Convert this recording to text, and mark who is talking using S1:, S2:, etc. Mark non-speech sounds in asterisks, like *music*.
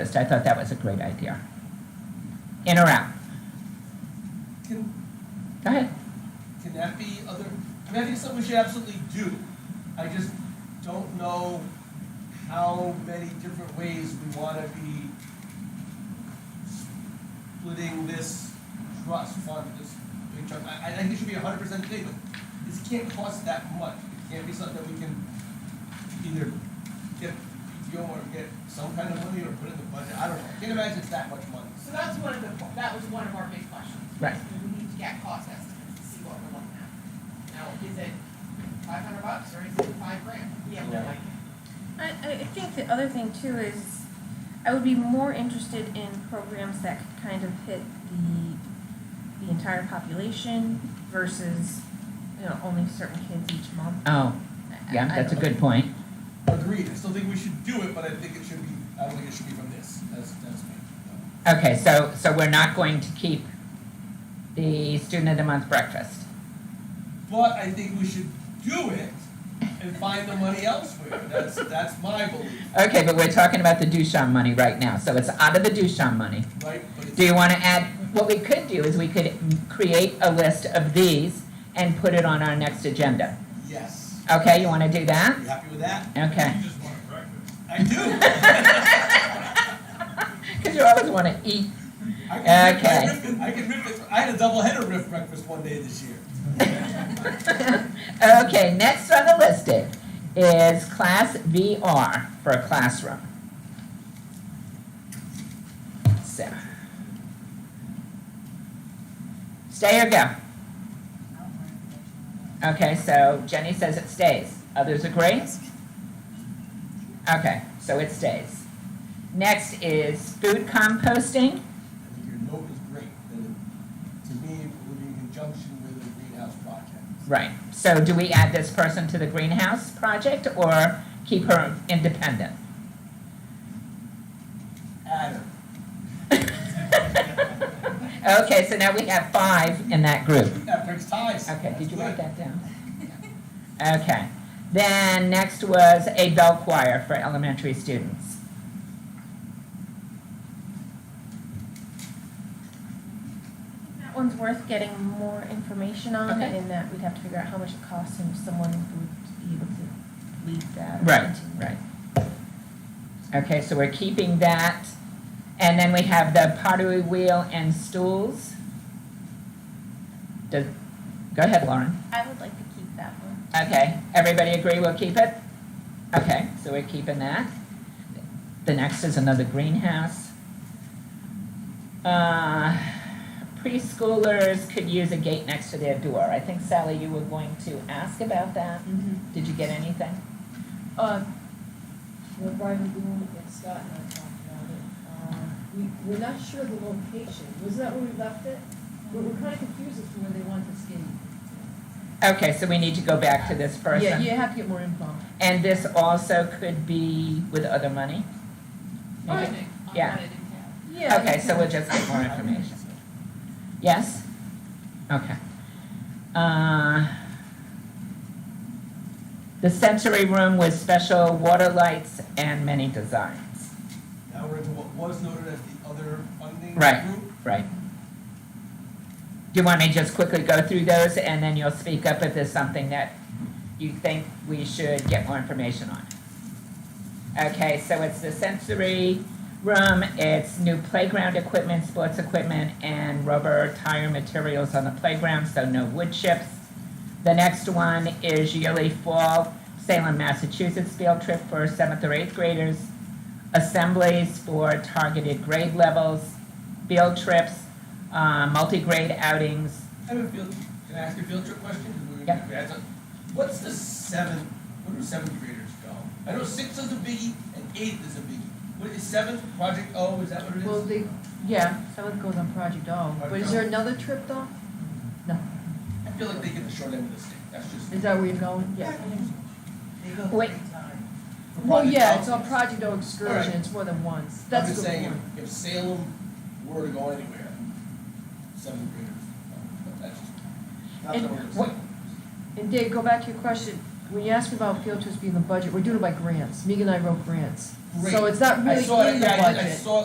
S1: list. I thought that was a great idea. In or out?
S2: Can,
S1: Go ahead.
S2: can that be other, I mean, I think it's something we should absolutely do. I just don't know how many different ways we wanna be splitting this trust fund, this big chunk. I, I think it should be a hundred percent statement. This can't cost that much. It can't be something that we can either get PTO or get some kind of money or put in the budget. I don't know. I can't imagine it's that much money.
S3: So that's one of the, that was one of our big questions.
S1: Right.
S3: We need to get cost estimates to see what we're looking at. Now, is it five hundred bucks or is it five grand? Yeah, we
S2: Yeah.
S3: like it.
S4: I, I I think the other thing too is I would be more interested in programs that could kind of hit the the entire population versus you know only certain kids each month.
S1: Oh,
S4: I-
S1: yeah,
S4: I- I
S1: that's a
S4: don't-
S1: good point.
S2: Agreed, I still think we should do it, but I think it should be, I don't think it should be from this, that's, that's me.
S1: Okay, so, so we're not going to keep the student of the month breakfast.
S2: But I think we should do it and find the money elsewhere, that's, that's my belief,
S1: Okay, but we're talking about the Duchamp money right now, so it's out of the Duchamp money.
S2: right? But it's-
S1: Do you want to add, what we could do is we could create a list of these and put it on our next agenda.
S2: Yes,
S1: Okay, you want to do that?
S2: you happy with that?
S1: Okay,
S5: You just want breakfast.
S2: I do.
S1: *laughs*
S2: I
S1: because you always want to eat.
S2: can rip-
S1: Okay.
S2: I ripped it- I can rip it, I had a double header riff breakfast one day this year.
S1: Okay, next on the listed is class VR for a classroom. So. Stay or go? Okay, so Jenny says it stays. Others agree? Okay, so it stays. Next is food composting.
S2: I think your note is great, that it, to me, it would be in conjunction with a greenhouse project.
S1: Right, so do we add this person to the greenhouse project or keep her independent?
S2: Adam,
S1: Okay, so now we have five in that group.
S2: that breaks ties.
S1: Okay, did you write
S2: That's good.
S1: that down? Okay, then next was a bell choir for elementary students.
S4: That one's worth getting more information on,
S1: Okay.
S4: and in that we'd have to figure out how much it costs and if someone would be able to lead that. or
S1: Right,
S4: continue.
S1: right. Okay, so we're keeping that. And then we have the pottery wheel and stools. Does, go ahead, Lauren.
S4: I would like to keep that one.
S1: Okay, everybody agree we'll keep it? Okay, so we're keeping that. The next is another greenhouse. Uh, preschoolers could use a gate next to their door. I think Sally, you were going to ask about that.
S6: Mm-hmm.
S1: Did you get anything?
S6: Uh, the private room that Scott and I talked about it, uh, we, we're not sure of the location, was that where we left it? We're, we're kinda confused as to where they want this getting.
S1: Okay, so we need to go back to this person.
S6: Yeah, you have to get more info.
S1: And this also could be with other money?
S3: Alright.
S1: Maybe.
S3: On
S1: Yeah.
S3: what it entails.
S6: Oh, Yeah.
S1: Okay, so we'll just get more information. Yes? Okay. Uh, The sensory room with special water lights and many designs.
S2: Now we're into what was noted as the other funding
S1: Right.
S2: group.
S1: Right. Do you want me to just quickly go through those and then you'll speak up if there's something that you think we should get more information on? Okay, so it's the sensory room, it's new playground equipment, sports equipment, and rubber tire materials on the playground, so no wood chips. The next one is yearly fall Salem, Massachusetts field trip for seventh or eighth graders. Assemblies for targeted grade levels field trips, uh, multi-grade outings.
S2: I have a field, can I ask a field trip question? 'Cause we-
S1: Yeah.
S2: we had some- What's the seventh, where do seventh graders go? I know sixth is a biggie and eighth is a biggie. What is seventh, Project O, is that what it is?
S6: Well, they, yeah, someone goes on Project O, but is there another trip though?
S2: I feel like they get the short end of the stick, that's just.
S6: Is that where you're going? Yeah.
S3: They go
S1: Wait.
S3: three times.
S2: for
S6: Well,
S2: Project
S6: yeah,
S2: O.
S6: it's on Project O excursion,
S2: Alright.
S6: it's more than once,
S2: I'm
S6: that's a
S2: just
S6: good
S2: saying,
S6: point.
S2: if, if Salem were to go anywhere, seventh graders, uh, that's just, that's
S6: And
S2: what we're
S6: what- And Dave, go back to your question, When you ask about field trips being in the budget, we're doing it by grants. Megan and I wrote grants.
S2: Great.
S6: So it's not
S2: I
S6: really
S2: saw it,
S6: in the
S2: yeah, I did- I
S6: budget.
S2: saw